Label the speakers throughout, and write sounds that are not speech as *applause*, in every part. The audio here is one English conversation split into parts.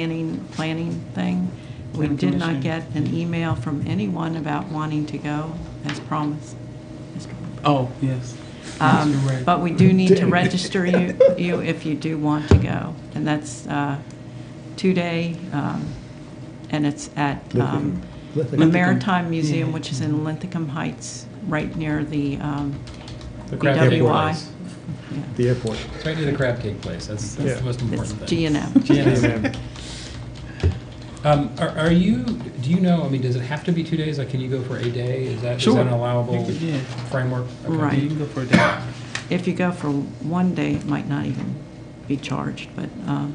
Speaker 1: planning, planning thing. We
Speaker 2: Planning
Speaker 1: did not
Speaker 2: commission.
Speaker 1: get an email from anyone about wanting to go, as promised. Mr.
Speaker 2: Oh, yes.
Speaker 1: Um,
Speaker 2: Yes, you're right. *laughs*
Speaker 1: But we do need to
Speaker 3: Damn it.
Speaker 1: register you, you if you do want to go. And that's uh, two-day, um, and it's at um,
Speaker 3: Lithicum.
Speaker 1: the Maritime
Speaker 2: Lithicum.
Speaker 1: Museum,
Speaker 2: Yeah.
Speaker 1: which is in Linthicum Heights, right near the um,
Speaker 4: The crab cake
Speaker 1: BWI.
Speaker 4: place.
Speaker 1: yeah.
Speaker 3: The airport.
Speaker 4: It's right near the crab cake place. That's, that's
Speaker 3: Yeah.
Speaker 4: the most
Speaker 1: It's
Speaker 4: important
Speaker 1: G and
Speaker 4: thing.
Speaker 1: M.
Speaker 4: G&M. Um, are, are you, do you know, I mean, does it have to be two days? Like, can you go for a day? Is that, is
Speaker 2: Sure.
Speaker 4: that an allowable
Speaker 2: You could, yeah.
Speaker 4: framework? Okay.
Speaker 2: Yeah,
Speaker 1: Right.
Speaker 2: you can go for a day.
Speaker 1: If you go for one day, it might not even be charged, but um,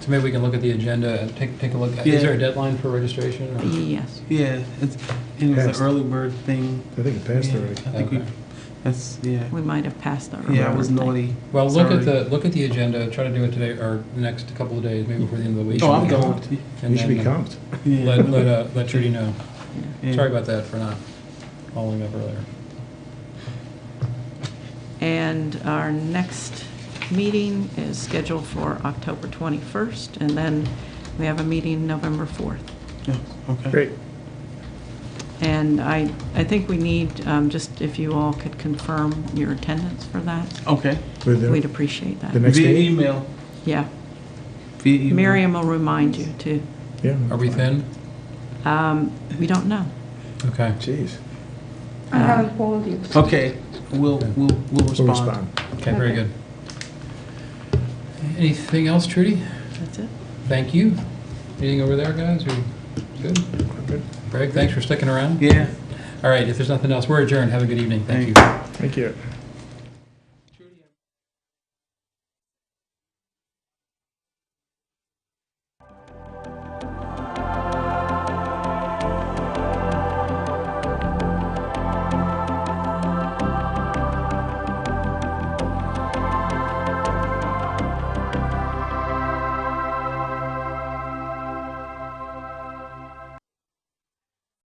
Speaker 4: So maybe we can look at the agenda and take, take a look.
Speaker 2: Yeah.
Speaker 4: Is there a deadline for registration? or-
Speaker 1: yes.
Speaker 2: Yeah, it's, and it was
Speaker 3: Passed.
Speaker 2: an early bird thing.
Speaker 3: I think it passed
Speaker 2: Yeah,
Speaker 3: already.
Speaker 2: I think we,
Speaker 4: Okay.
Speaker 2: that's, yeah.
Speaker 1: We might have passed that.
Speaker 2: Yeah, I
Speaker 1: earlier
Speaker 2: was
Speaker 1: thing.
Speaker 2: naughty.
Speaker 4: Well, look
Speaker 2: Sorry.
Speaker 4: at the, look at the agenda, try to do it today or the next couple of days, maybe before the end of the week.
Speaker 2: Oh, I'm
Speaker 4: And
Speaker 2: going to.
Speaker 3: You should be
Speaker 4: then uh,
Speaker 3: comped.
Speaker 2: Yeah.
Speaker 4: Let, let, uh, let Trudy know.
Speaker 2: Yeah.
Speaker 4: Sorry about that for not following up earlier.
Speaker 1: And our next meeting is scheduled for October 21st, and then we have a meeting November 4th.
Speaker 2: Yeah, Okay.
Speaker 3: Great.
Speaker 1: And I, I think we need, um, just if you all could confirm your attendance for that,
Speaker 2: Okay.
Speaker 3: With the-
Speaker 1: we'd appreciate
Speaker 3: The
Speaker 1: that.
Speaker 3: next
Speaker 2: Via
Speaker 3: meeting?
Speaker 2: email.
Speaker 1: Yeah.
Speaker 2: Via email.
Speaker 1: Miriam will remind you too.
Speaker 3: Yeah.
Speaker 4: Are we thin?
Speaker 1: Um, We don't know.
Speaker 4: Okay.
Speaker 3: Jeez.
Speaker 5: I haven't called you.
Speaker 2: Okay, we'll, we'll, we'll
Speaker 3: We'll
Speaker 2: respond.
Speaker 3: respond.
Speaker 4: Okay, very
Speaker 5: Okay.
Speaker 4: good. Anything else, Trudy?
Speaker 1: That's it.
Speaker 4: Thank you. Anything over there, guys? Are you good?
Speaker 3: Good.
Speaker 4: Greg, thanks for sticking around.
Speaker 2: Yeah,
Speaker 4: All right, if there's nothing else, we're adjourned. Have a good evening. Thank you.
Speaker 2: Thank you.
Speaker 3: Thank you.